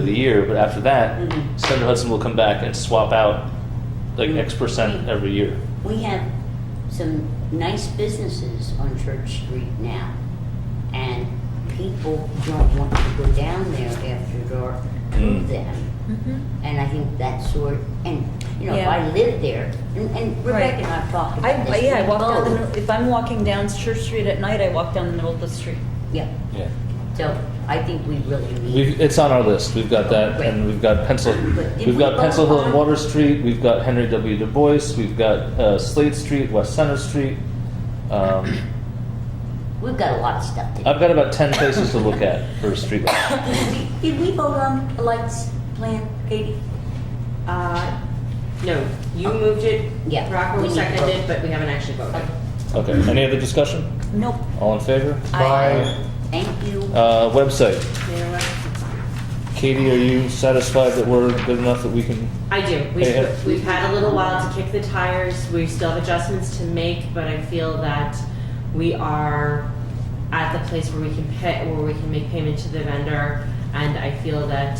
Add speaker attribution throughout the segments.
Speaker 1: of the year, but after that, Senator Hudson will come back and swap out like
Speaker 2: Mhm.
Speaker 1: X percent every year.
Speaker 2: We have some nice businesses on Church Street now, and people don't want to go down there after dark to
Speaker 1: Mm.
Speaker 2: them.
Speaker 3: Mhm.
Speaker 2: And I think that sort, and, you know, if
Speaker 3: Yeah.
Speaker 2: I lived there, and- and
Speaker 3: Right.
Speaker 2: Rebecca and I talked
Speaker 3: I,
Speaker 2: about
Speaker 3: I-
Speaker 2: this. Oh,
Speaker 3: yeah, I
Speaker 2: we
Speaker 3: walk down, the
Speaker 2: both-
Speaker 3: middle- if I'm walking down Church Street at night, I walk down the middle of the street.
Speaker 2: Yeah,
Speaker 1: Yeah,
Speaker 2: so I think we really need,
Speaker 1: we've, it's on our list. We've got that, and we've got Pencil,
Speaker 2: But if
Speaker 1: we've
Speaker 2: we
Speaker 1: got
Speaker 2: go
Speaker 1: Pencil Hill and
Speaker 2: on-
Speaker 1: Water Street. We've got Henry W. Du Bois. We've got uh, Slade Street, West Center Street. Um,
Speaker 2: we've got a lot of stuff to do.
Speaker 1: I've got about ten places to look at for streetlights.
Speaker 4: Did we vote on the lights plan, Katie?
Speaker 5: Uh, No, you moved it.
Speaker 2: Oh. Yeah.
Speaker 5: Rocco
Speaker 2: We need to
Speaker 5: seconded,
Speaker 2: vote.
Speaker 5: but we haven't actually voted.
Speaker 1: Okay. Any other discussion?
Speaker 3: Nope.
Speaker 1: All in favor?
Speaker 3: I-
Speaker 2: Thank you.
Speaker 1: Uh, website.
Speaker 5: You know what?
Speaker 1: Katie, are you satisfied that we're good enough that we can?
Speaker 5: I do.
Speaker 1: Hey,
Speaker 5: We've,
Speaker 1: hey.
Speaker 5: we've had a little while to kick the tires. We still have adjustments to make, but I feel that we are at the place where we can pay, where we can make payment to the vendor. And I feel that,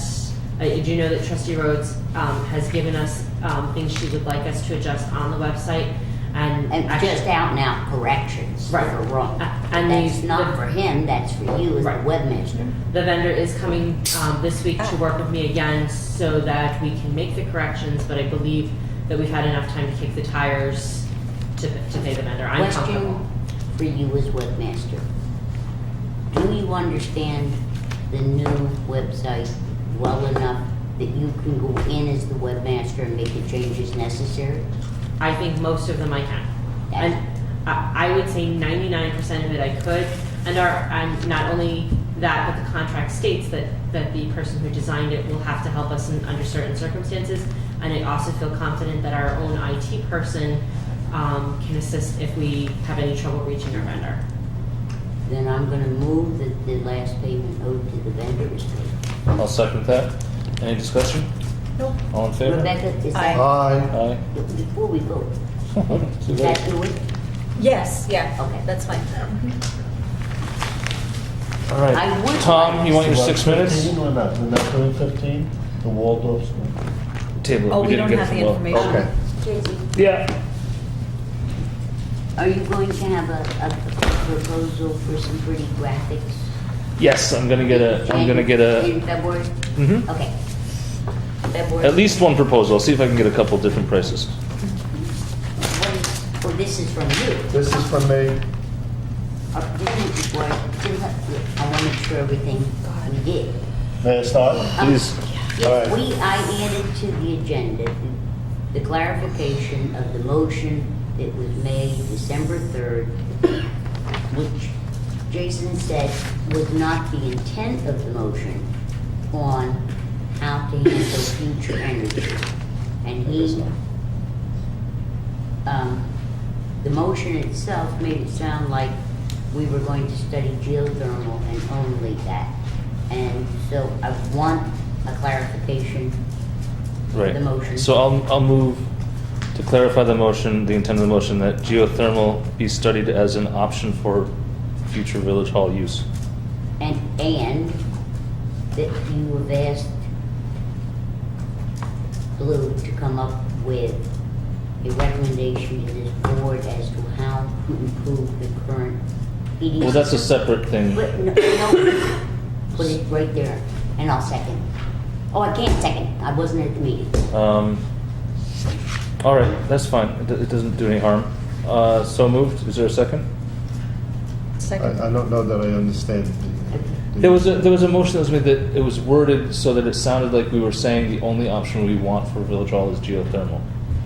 Speaker 5: I do know that trustee Rhodes, um, has given us, um, things she would like us to adjust on the website and.
Speaker 2: And
Speaker 5: actually-
Speaker 2: just out and out corrections that
Speaker 5: Right.
Speaker 2: are wrong.
Speaker 5: A- and
Speaker 2: That's
Speaker 5: these-
Speaker 2: not for him, that's for you as the
Speaker 5: Right.
Speaker 2: webmaster.
Speaker 5: The vendor is coming um, this week to work with me again so that we can make the corrections, but I believe that we've had enough time to kick the tires to, to pay the vendor. I'm
Speaker 2: Question
Speaker 5: comfortable.
Speaker 2: for you as webmaster. Do you understand the new website well enough that you can go in as the webmaster and make the changes necessary?
Speaker 5: I think most of them I can. And I, I would say ninety-nine percent of it I could. And our, and not only that, but the contract states that, that the person who designed it will have to help us in, under certain circumstances. And I also feel confident that our own IT person, um, can assist if we have any trouble reaching our vendor.
Speaker 2: Then I'm gonna move that the last payment owed to the vendor is paid.
Speaker 1: I'll second that. Any discussion?
Speaker 3: Nope.
Speaker 1: All in favor?
Speaker 2: Rebecca, is that,
Speaker 6: Aye.
Speaker 1: Aye.
Speaker 2: before we go,
Speaker 1: Too
Speaker 2: is
Speaker 1: late.
Speaker 2: that do it?
Speaker 3: Yes, yeah.
Speaker 2: Okay.
Speaker 3: That's fine.
Speaker 6: All right.
Speaker 2: I would
Speaker 1: Tom, you
Speaker 2: like-
Speaker 1: want your six minutes?
Speaker 6: 15 or not? We're not doing 15? The Waldorf School?
Speaker 1: Table. it.
Speaker 3: Oh, we
Speaker 1: didn't
Speaker 3: don't
Speaker 1: get
Speaker 3: have
Speaker 1: from
Speaker 3: the
Speaker 1: Will.
Speaker 3: information.
Speaker 6: Okay.
Speaker 1: Yeah.
Speaker 2: Are you going to have a, a proposal for some pretty graphics?
Speaker 1: Yes, I'm gonna get a. I'm gonna
Speaker 2: in-
Speaker 1: get a.
Speaker 2: In February?
Speaker 1: Mhm.
Speaker 2: Okay. February.
Speaker 1: At least one proposal. I'll see if I can get a couple different prices.
Speaker 2: What is- Well, this is from you.
Speaker 6: This is from me.
Speaker 2: Uh, this is where- I want to make sure everything we did.
Speaker 6: May I start?
Speaker 2: Um,
Speaker 6: Please. All
Speaker 2: Yes,
Speaker 6: right.
Speaker 2: we, I added to the agenda the- the clarification of the motion that was made December 3rd, which Jason said was not the intent of the motion on how to handle future energy. And he, um, the motion itself made it sound like we were going to study geothermal and only that. And so I want a clarification of
Speaker 1: Right.
Speaker 2: the motion.
Speaker 1: So I'll I'll move to clarify the motion, the intent of the motion that geothermal be studied as an option for future village hall use.
Speaker 2: And, and that you have asked Blue to come up with a recommendation to this board as to how to improve the current heating.
Speaker 1: Well, that's a
Speaker 2: system.
Speaker 1: separate thing.
Speaker 2: But, no, no, put it right there, and I'll second. Oh, I can't second, I wasn't at the meeting.
Speaker 1: Um, all right, that's fine. It, do- it doesn't do any harm. Uh, so moved. Is there a second?
Speaker 3: Second.
Speaker 6: I, I don't know that I understand the. the-
Speaker 1: There was a there was a motion that was made that it was worded so that it sounded like we were saying the only option we want for village hall is geothermal.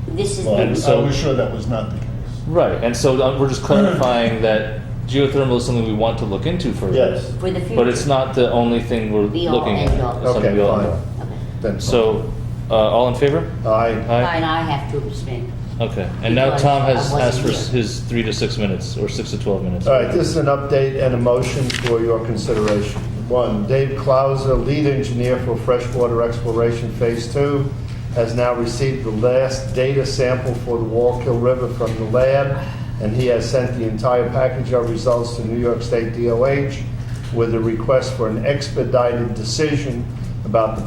Speaker 2: This is,
Speaker 6: Well, I
Speaker 1: And
Speaker 6: was
Speaker 2: the-
Speaker 1: so-
Speaker 6: I was sure that was not the case.
Speaker 1: Right, and so uh, we're just clarifying that geothermal is something we want to look into further.
Speaker 6: Yes.
Speaker 2: for the future.
Speaker 1: But it's not the only thing we're
Speaker 2: Be all
Speaker 1: looking at.
Speaker 2: and all.
Speaker 1: It's something
Speaker 6: Okay,
Speaker 1: we all
Speaker 6: fine.
Speaker 1: know.
Speaker 2: Okay.
Speaker 6: Then.
Speaker 1: So, uh, all in favor?
Speaker 6: Aye.
Speaker 1: Aye.
Speaker 2: And I have to abstain.
Speaker 1: Okay, and now
Speaker 2: Because
Speaker 1: Tom has
Speaker 2: I wasn't
Speaker 1: asked for
Speaker 2: here.
Speaker 1: his three to six minutes, or six to 12 minutes.
Speaker 6: All right, this is an update and a motion for your consideration. One, Dave Clauser, lead engineer for freshwater exploration Phase Two, has now received the last data sample for the Wallkill River from the lab, and he has sent the entire package of results to New York State DOH with a request for an expedited decision about the